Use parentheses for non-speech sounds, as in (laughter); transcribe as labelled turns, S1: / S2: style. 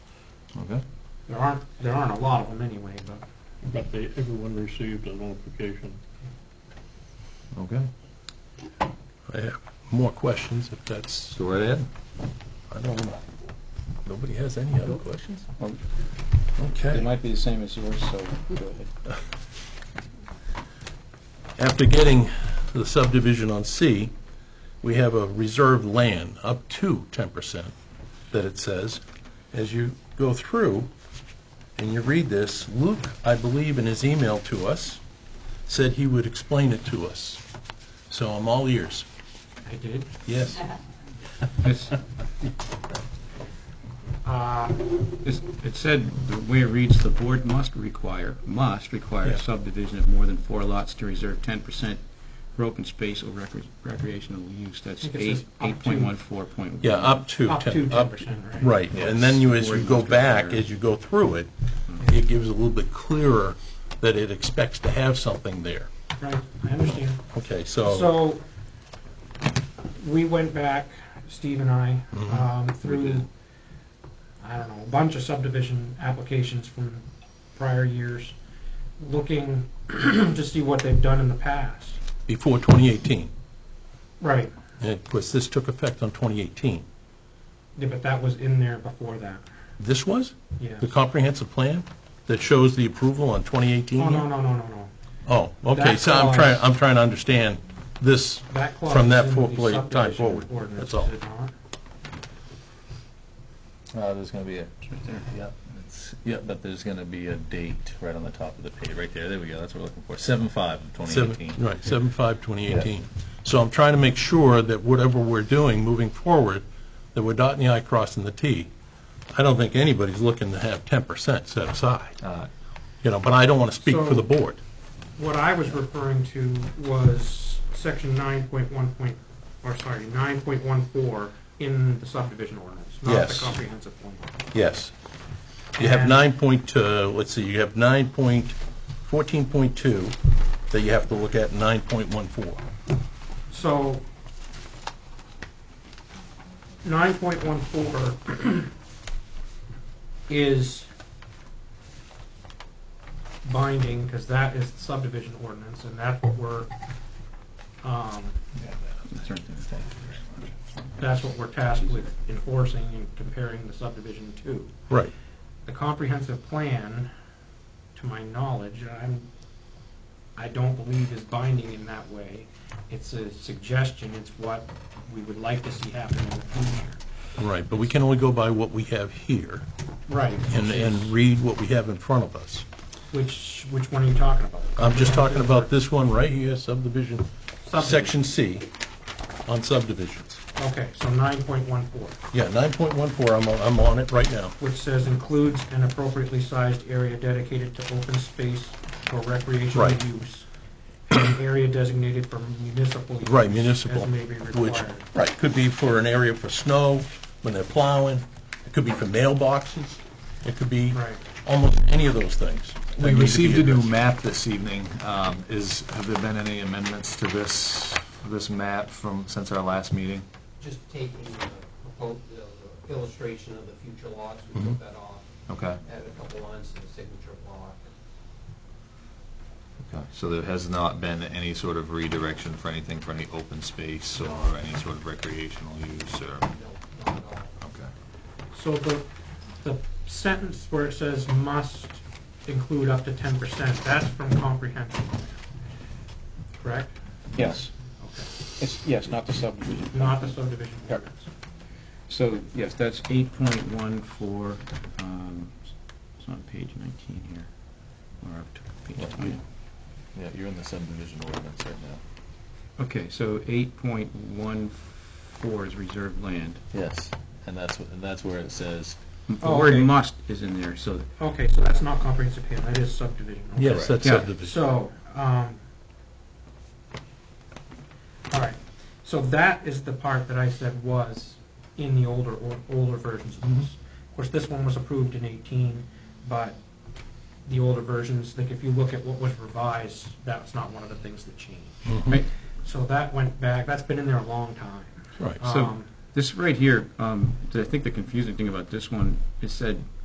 S1: There aren't, there aren't a lot of them anyway, but.
S2: But they, everyone received a notification.
S3: Okay,
S4: I have more questions, if that's,
S3: so right ahead.
S4: I don't know. Nobody has any other questions?
S5: Well, It
S4: Okay.
S5: might be the same as yours, so go ahead.
S4: After getting the subdivision on C, we have a reserved land up to 10% that it says. As you go through and you read this, Luke, I believe in his email to us, said he would explain it to us. So I'm all ears.
S1: I did.
S4: Yes?
S6: It's-
S1: Uh,
S6: it's- It said, the way it reads, the board must require, must require
S4: Yeah.
S6: a subdivision of more than four lots to reserve ten percent for open space or recre- recreational use. That's
S1: I think it says
S6: eight, eight
S1: up to.
S6: point one, four point one.
S4: Yeah, up to.
S1: Up
S4: 10
S1: to 10%, right.
S4: Right, and then you, as
S6: Or
S4: you
S6: you
S4: go
S6: must
S4: back,
S6: retire.
S4: as you go through it, it gives a little bit clearer that it expects to have something there.
S1: right, I understand.
S4: Okay, so,
S1: So, we went back, Steve and I,
S4: Mm-hmm.
S1: um, through, I don't know, a bunch of subdivision applications from prior years, looking (clears throat) to see what they've done in the past.
S4: before 2018,
S1: Right,
S4: and of course, this took effect on 2018.
S1: yeah, but that was in there before that,
S4: This was
S1: yeah.
S4: the comprehensive plan that shows the approval on 2018?
S1: Oh, no, no, no, no, no.
S4: Oh, okay,
S1: That
S4: so I'm
S1: clause-
S4: trying, I'm trying to understand this
S1: That clause
S4: from
S1: is
S4: that
S1: in
S4: fo-
S1: the
S4: plate- time
S1: subdivision
S4: forward.
S1: ordinance,
S4: That's all.
S1: is it not?
S3: Uh, there's gonna be a,
S5: Right there.
S3: yeah, it's, yeah, but there's gonna be a date right on the top of the page, right there, there we go, that's what we're looking for, seven five of twenty
S4: Seven-
S3: eighteen.
S4: Right, seven five, twenty eighteen. So I'm trying to make sure that whatever we're doing moving forward, that we're dotting the i, crossing the t. I don't think anybody's looking to have ten percent set aside,
S3: Uh,
S4: you know, but I don't want to speak for the
S1: So-
S4: board.
S1: What I was referring to was section nine point one point, or sorry, nine point one four in the subdivision ordinance, not the
S4: Yes.
S1: comprehensive plan.
S4: Yes. You have
S1: And-
S4: nine point, uh, let's see, you have nine point, fourteen point two that you have to look at, nine point one four.
S1: So nine point one four is binding, because that is the subdivision ordinance, and that's what we're, um,
S5: That's right there.
S1: that's what we're tasked with enforcing and comparing the subdivision to.
S4: Right.
S1: the comprehensive plan, to my knowledge, I'm, I don't believe is binding in that way. It's a suggestion, it's what we would like to see happen in the future.
S4: Right, but we can only go by what we have here
S1: Right.
S4: and, and read what we have in front of us.
S1: Which, which one are you talking about?
S4: I'm just talking about this one right here, subdivision,
S1: Subdivision.
S4: section C, on subdivisions.
S1: Okay, so nine point one four,
S4: Yeah, 9.14, I'm, on- I'm on it right now.
S1: which says includes an appropriately sized area dedicated to open space for recreational
S4: Right.
S1: use. and An area designated for municipal use.
S4: Right, municipal.
S1: As may be
S4: Which,
S1: required.
S4: right, could be for an area for snow, when they're plowing, it could be for mailboxes, it could be
S1: Right.
S4: almost any of those things. that need
S3: We
S4: to be
S3: received a new
S4: addressed.
S3: map this evening, um, is, have there been any amendments to this, this map from, since our last meeting?
S7: just taking the propo- the- the illustration of the future lots, we took that off,
S3: Okay,
S7: added a couple lines to the signature block.
S3: okay, so there has not been any sort of redirection for anything, for any open space or any sort of recreational use or,
S7: No, not at all.
S3: okay.
S1: So the, the sentence where it says must include up to ten percent, that's from comprehensive plan, correct?
S6: Yes,
S1: Okay.
S6: it's, yes, not the subdivision.
S1: Not the subdivision
S6: Correct.
S1: ordinance.
S6: So, yes, that's eight point one four, um, it's on page nineteen here, or up to
S3: Yeah.
S6: page twenty.
S3: Yeah, you're in the subdivision ordinance right now.
S6: Okay, so eight point one four is reserved land.
S3: Yes, and that's, wh- and that's where it says,
S6: The
S1: Oh,
S6: word
S1: okay.
S6: must is in there, so
S1: Okay, so that's not comprehensive plan, that is subdivision. okay.
S4: Yes, that's
S6: Yeah.
S4: subdivision.
S1: So, um, all right, so that is the part that I said was in the older, or older versions of this. Of course, this one was approved in eighteen, but the older versions, like if you look at what was revised, that's not one of the things that changed.
S6: Right.
S1: So that went back, that's been in there a long time.
S4: Right.
S6: So-
S1: Um,
S6: This right here, um, I think the confusing thing about this one, it said